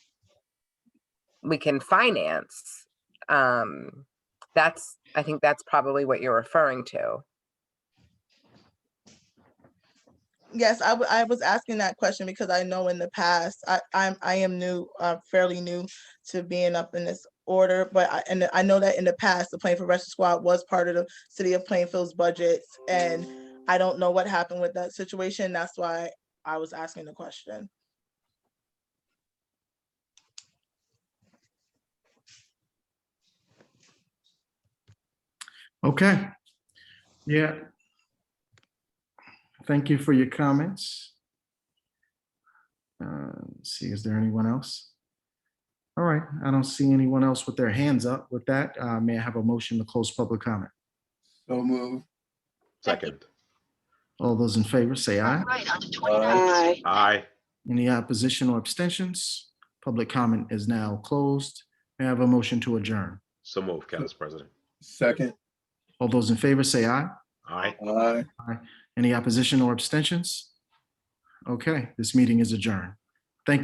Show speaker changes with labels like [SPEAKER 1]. [SPEAKER 1] we can finance. Um, that's, I think that's probably what you're referring to.
[SPEAKER 2] Yes, I, w- I was asking that question because I know in the past, I, I'm, I am new, uh, fairly new to being up in this order, but I, and I know that in the past, the Plainfield Rescue Squad was part of the city of Plainfield's budgets, and I don't know what happened with that situation, that's why I was asking the question.
[SPEAKER 3] Okay. Yeah. Thank you for your comments. Uh, let's See, is there anyone else? All right, I don't see anyone else with their hands up. With that, uh, may I have a motion to close public comment?
[SPEAKER 4] So move.
[SPEAKER 5] Second.
[SPEAKER 3] All those in favor, say aye.
[SPEAKER 6] Right onto 29th.
[SPEAKER 4] Aye.
[SPEAKER 5] Aye.
[SPEAKER 3] Any opposition or abstentions? Public comment is now closed. May I have a motion to adjourn?
[SPEAKER 5] So move, Council President.
[SPEAKER 4] Second.
[SPEAKER 3] All those in favor, say aye.
[SPEAKER 5] Aye.
[SPEAKER 4] Aye.
[SPEAKER 3] Any opposition or abstentions? Okay, this meeting is adjourned.